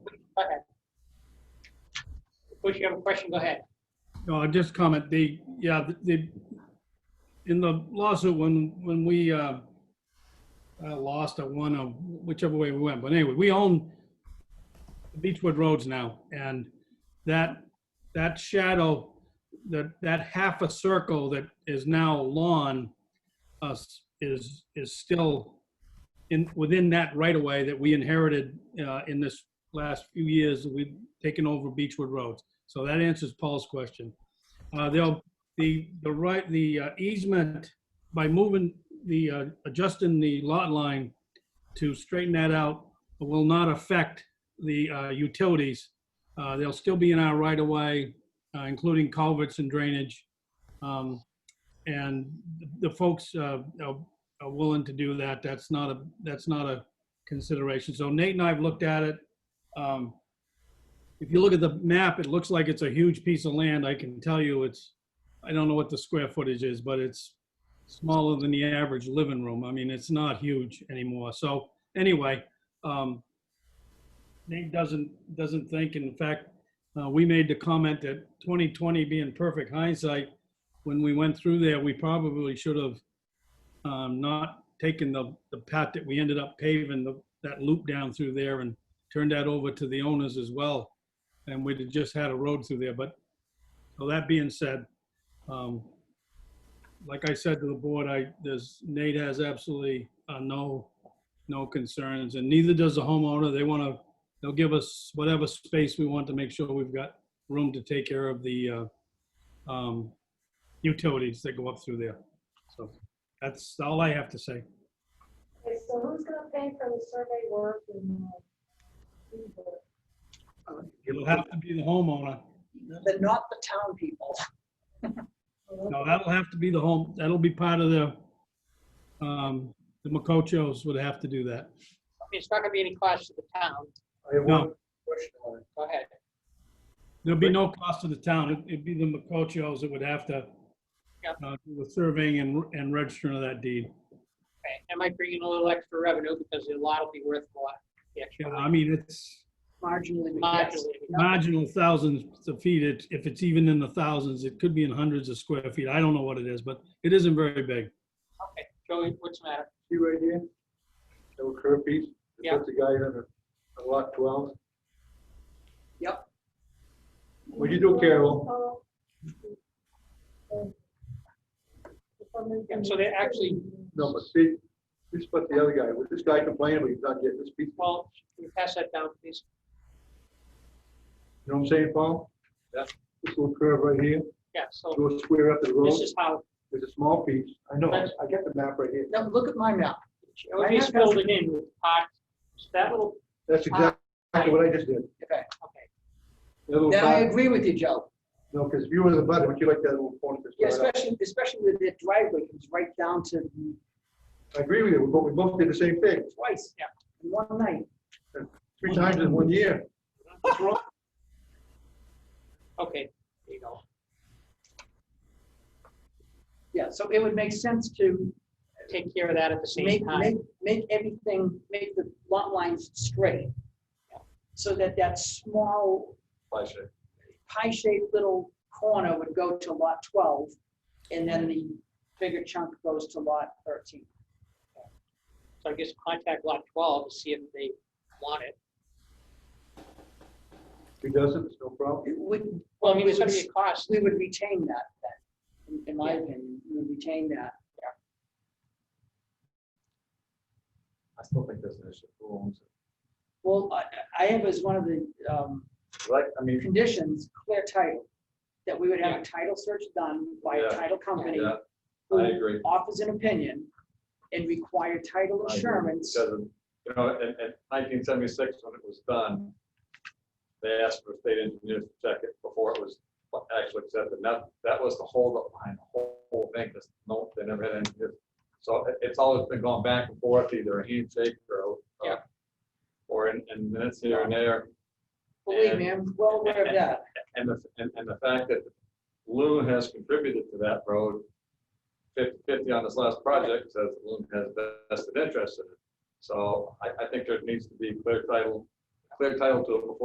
Go ahead. Bush, you have a question? Go ahead. No, I'll Oh, just comment, they, yeah, they, in the lawsuit, when, when we uh, uh, lost or won, or whichever way we went, but anyway, we own Beechwood Roads now, and that, that shadow, that, that half a circle that is now lawn us is, is still in, within that right-of-way that we inherited uh, in this last few years, we've taken over Beechwood Roads. So that answers Paul's question. Uh, They'll, the, the right, the uh, easement, by moving the, uh, adjusting the lot line to straighten that out, will not affect the uh, utilities. Uh, They'll still be in our right of way, uh, including culverts and drainage. Um, And the folks uh, are are willing to do that. That's not a, that's not a consideration. So Nate and I have looked at it. Um, if you look at the map, it looks like it's a huge piece of land. I can tell you it's, I don't know what the square footage is, but it's smaller than the average living room. I mean, it's not huge anymore. So anyway, um, Nate doesn't, doesn't think, in fact, uh, we made the comment that 2020 being perfect hindsight, when we went through there, we probably should have um, not taken the, the path that we ended up paving, the- that loop down through there and turned that over to the owners as well and we'd have just had a road through there, but, so that being said, um, like I said to the board, I, there's, Nate has absolutely, uh, no, no concerns, and neither does the homeowner, they wanna, they'll give us whatever space we want to make sure we've got room to take care of the, uh, um, utilities that go up through there, so, that's all I have to say. Okay, so who's gonna pay for the survey work and? uh, who's the- It'll have to be the homeowner, They're not the town people. no, that'll have to be the home, that'll be part of the, um, the Macochos would have to do that. It's not gonna be any cost to the town. I have No. one question on it. Go ahead. There'll be no cost to the town. It- It'd be the Macochos that would have to Yeah. uh, do the surveying and, and registering of that deed. Okay, That might bring in a little extra revenue because the lot will be worth a lot. The You extra know, I mean, it's Marginally, but yes. Modulated. marginal thousands of feet. It- If it's even in the thousands, it could be in hundreds of square feet. I don't know what it is, but it isn't very big. Okay, Joey, what's the matter? See right here? Little curve piece. It Yeah. puts the guy on a, a lot twelve. Yep. What'd you do, Carol? Oh. Oh. Yeah, so they actually- No, but see, this is what the other guy, was this guy complaining, but he's not getting this piece. You Paul, can you pass that down, please? know what I'm saying, Paul? Yeah. This little curve right here, Yeah, so go square up to the road. this is how, There's a small piece. I know, That's- I got the map right here. Now, look at my map. it would be filled in with pot. So that little, That's Ah. exactly what I just did. Okay. okay, That little Now, I part, agree with you, Joe. no, because if you were the butter, would you like that little corner? to Yeah, start out? especially, especially with the driveway comes right down to I agree with you, but we both did the same thing, twice Yeah. in one night. three times in one year. What's wrong? okay, there you go. Yeah, so it would make sense to Take care of that at the same make, time. make, make everything, make the lot lines straight. So that that small pie-shaped little corner would go to lot 12, and then the bigger chunk goes to lot 13. So I guess contact lot twelve to see if they want it. He doesn't, it's no problem. It would, Well, I mean, it's gonna be a cost. we would retain that then, in- in my opinion, we would retain that. I still think there's an issue. Who owns it? Well, I, I have as one of the um, Like, I mean, conditions, clear title, that we would have a title search done by a Yeah. title company yeah, I who agree. offers an opinion and require title I agree. insurance. Because, of- you know, in, in nineteen seventy-six, when it was done, they asked for state engineers to check it before it was actually accepted. And that, that was the holdup behind the whole, whole thing, because no, they never had engineers. So it- it's always been going back and forth, either a handshake or, Yeah. or in, in minutes here and there. Believe And- me, I'm well aware of that. And the, and, and the fact that Loon has contributed to that road, 50 50 on this last project, says Loon has vested interest in it. So I, I think there needs to be clear title, clear title to it before